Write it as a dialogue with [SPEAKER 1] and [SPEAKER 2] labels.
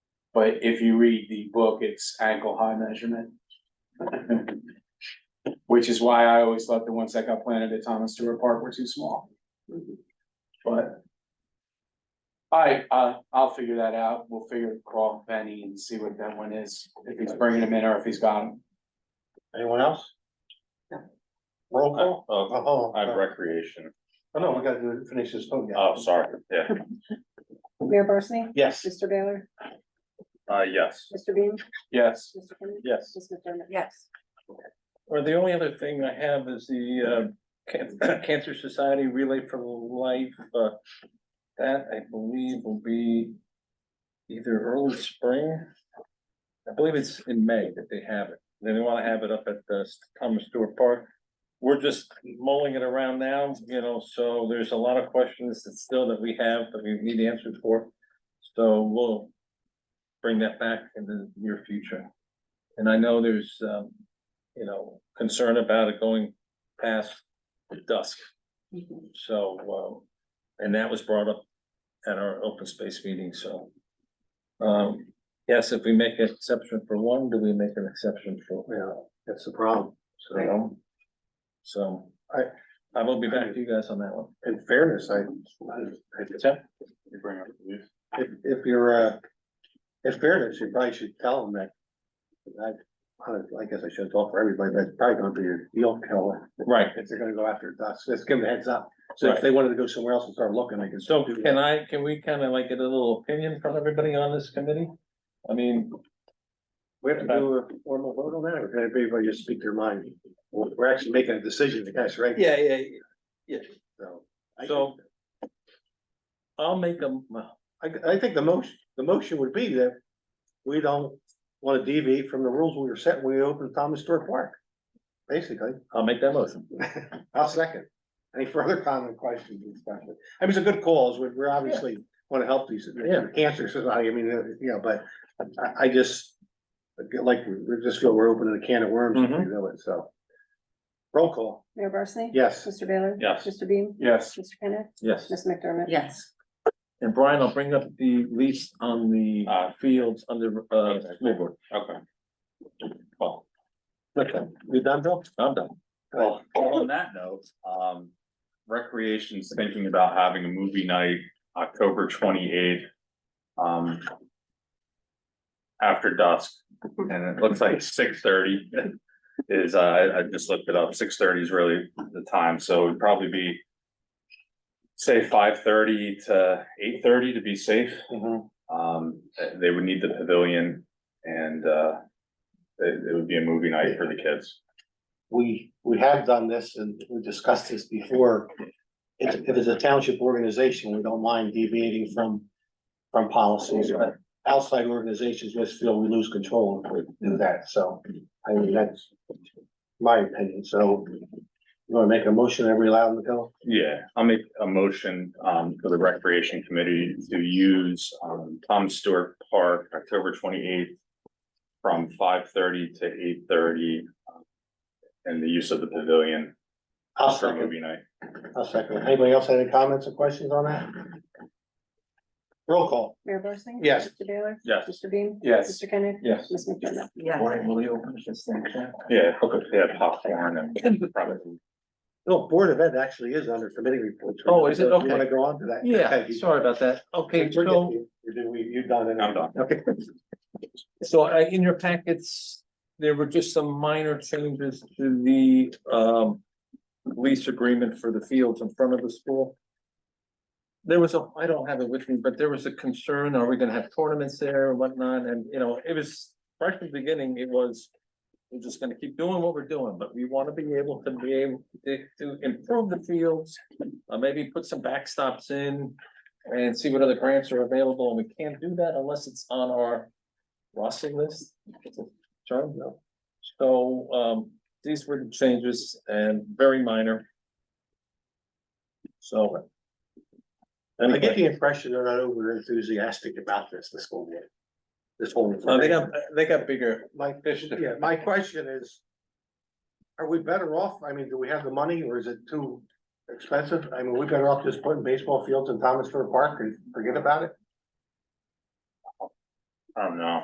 [SPEAKER 1] But if you read the book, it's ankle high measurement. Which is why I always thought the ones that got planted at Thomas Stewart Park were too small. But. I, uh, I'll figure that out. We'll figure call Benny and see what that one is, if he's bringing them in or if he's got them.
[SPEAKER 2] Anyone else?
[SPEAKER 3] No.
[SPEAKER 2] Roll call?
[SPEAKER 4] Uh,
[SPEAKER 2] Oh,
[SPEAKER 4] I'm
[SPEAKER 2] oh,
[SPEAKER 4] recreation.
[SPEAKER 2] oh, no, we gotta do- finish this phone.
[SPEAKER 4] Oh, sorry. Yeah.
[SPEAKER 3] Mayor Barsney?
[SPEAKER 2] Yes.
[SPEAKER 3] Mr. Baylor?
[SPEAKER 4] Uh, yes.
[SPEAKER 3] Mr. Bean?
[SPEAKER 1] Yes,
[SPEAKER 3] Mr. Kennedy?
[SPEAKER 4] Yes.
[SPEAKER 3] Ms. McDermott? Yes.
[SPEAKER 5] Or the only other thing I have is the uh Can- Cancer Society Relay for Life, uh. That I believe will be either early spring. I believe it's in May that they have it. Then they wanna have it up at the Thomas Stewart Park. We're just mulling it around now, you know, so there's a lot of questions that still that we have that we need answers for. So we'll bring that back in the near future. And I know there's um you know, concern about it going past dusk. So, um, and that was brought up at our open space meeting, so. Um, yes, if we make an exception for one, do we make an exception for,
[SPEAKER 2] Yeah, that's the problem.
[SPEAKER 5] you know? So, I, I will be back to you guys on that one.
[SPEAKER 2] In fairness, I, I,
[SPEAKER 4] You bring up the news.
[SPEAKER 2] if, if you're, uh, in fairness, you probably should tell them that. I, I guess I should talk for everybody, but it's probably gonna be a deal killer
[SPEAKER 5] Right,
[SPEAKER 2] if they're gonna go after us. Let's give them a heads up. So if they wanted to go somewhere else and start looking, they can
[SPEAKER 5] so
[SPEAKER 2] still do that.
[SPEAKER 5] can I, can we kind of like get a little opinion from everybody on this committee? I mean,
[SPEAKER 2] We have to do a formal vote on that, or can everybody just speak their mind? We're, we're actually making a decision, the guys, right?
[SPEAKER 5] yeah, yeah, yeah,
[SPEAKER 2] So. I-
[SPEAKER 5] So- I'll make a,
[SPEAKER 2] I, I think the most, the motion would be that we don't wanna deviate from the rules we were set when we opened Thomas Stewart Park. Basically,
[SPEAKER 5] I'll make that motion.
[SPEAKER 2] I'll second. Any further comment, questions, and stuff? I mean, it's a good cause, we're, we're obviously wanna help these,
[SPEAKER 5] Yeah.
[SPEAKER 2] cancer society, I mean, uh, you know, but I, I just like, we just feel we're opening a can of worms if we do it, so. Roll call,
[SPEAKER 3] Mayor Barsney?
[SPEAKER 2] yes.
[SPEAKER 3] Mr. Baylor?
[SPEAKER 4] Yes.
[SPEAKER 3] Mr. Bean?
[SPEAKER 1] yes,
[SPEAKER 3] Mr. Kennedy?
[SPEAKER 5] Yes.
[SPEAKER 3] Ms. McDermott?
[SPEAKER 6] Yes,
[SPEAKER 5] And Brian, I'll bring up the lease on the
[SPEAKER 4] Uh,
[SPEAKER 5] fields under, uh,
[SPEAKER 4] okay.
[SPEAKER 5] school board.
[SPEAKER 4] Okay. Well,
[SPEAKER 5] Okay,
[SPEAKER 2] You done, Bill?
[SPEAKER 5] I'm done.
[SPEAKER 4] well, on that note, um, recreation's thinking about having a movie night October twenty eighth. Um. After dusk, and it looks like six thirty is, uh, I, I just looked it up, six thirty is really the time, so it'd probably be. Say five thirty to eight thirty to be safe. Um, th- they would need the pavilion and, uh, it, it would be a movie night for the kids.
[SPEAKER 2] we, we have done this and we discussed this before. If, if it's a township organization, we don't mind deviating from, from policies, but outside organizations just feel we lose control if we do that, so. I mean, that's my opinion, so you wanna make a motion, every allow them to go?
[SPEAKER 4] Yeah, I'll make a motion, um, for the recreation committee to use, um, Tom Stewart Park, October twenty-eighth. From five thirty to eight thirty. um, And the use of the pavilion
[SPEAKER 2] I'll
[SPEAKER 4] for
[SPEAKER 2] second,
[SPEAKER 4] movie night.
[SPEAKER 2] I'll second. Anybody else have any comments or questions on that? Roll call,
[SPEAKER 3] Mayor Barsney?
[SPEAKER 2] Yes.
[SPEAKER 3] Mr. Baylor?
[SPEAKER 4] Yes.
[SPEAKER 3] Mr. Bean?
[SPEAKER 1] yes,
[SPEAKER 3] Mr. Kennedy?
[SPEAKER 5] Yes.
[SPEAKER 3] Ms. McDermott?
[SPEAKER 6] yes.
[SPEAKER 5] Brian, will you open this thing?
[SPEAKER 4] Yeah, hook up, yeah, popcorn and probably.
[SPEAKER 2] no, Board of Ed actually is under committee reports.
[SPEAKER 5] Oh, is it?
[SPEAKER 2] You Wanna
[SPEAKER 5] Okay.
[SPEAKER 2] go on to that?
[SPEAKER 5] Yeah,
[SPEAKER 2] Okay.
[SPEAKER 5] sorry about that. Okay,
[SPEAKER 2] We're
[SPEAKER 5] so,
[SPEAKER 2] getting you. You're doing- You've done it.
[SPEAKER 4] I'm done.
[SPEAKER 2] Okay.
[SPEAKER 5] so I, in your packets, there were just some minor changes to the, um. Lease agreement for the fields in front of the school. There was a, I don't have it with me, but there was a concern, are we gonna have tournaments there and whatnot? And, you know, it was, right from the beginning, it was. We're just gonna keep doing what we're doing, but we wanna be able to be able to, to improve the fields. Uh, maybe put some backstops in and see what other grants are available, and we can't do that unless it's on our roster list. It's a term, no. So, um, these were the changes and very minor. So.
[SPEAKER 2] I get the impression they're not over enthusiastic about this, this whole year. This whole.
[SPEAKER 5] Uh, they got, they got bigger
[SPEAKER 2] My,
[SPEAKER 5] fish to
[SPEAKER 2] yeah, my question is. Are we better off? I mean, do we have the money or is it too expensive? I mean, we better off just putting baseball fields in Thomasville Park and forget about it?
[SPEAKER 4] I don't know.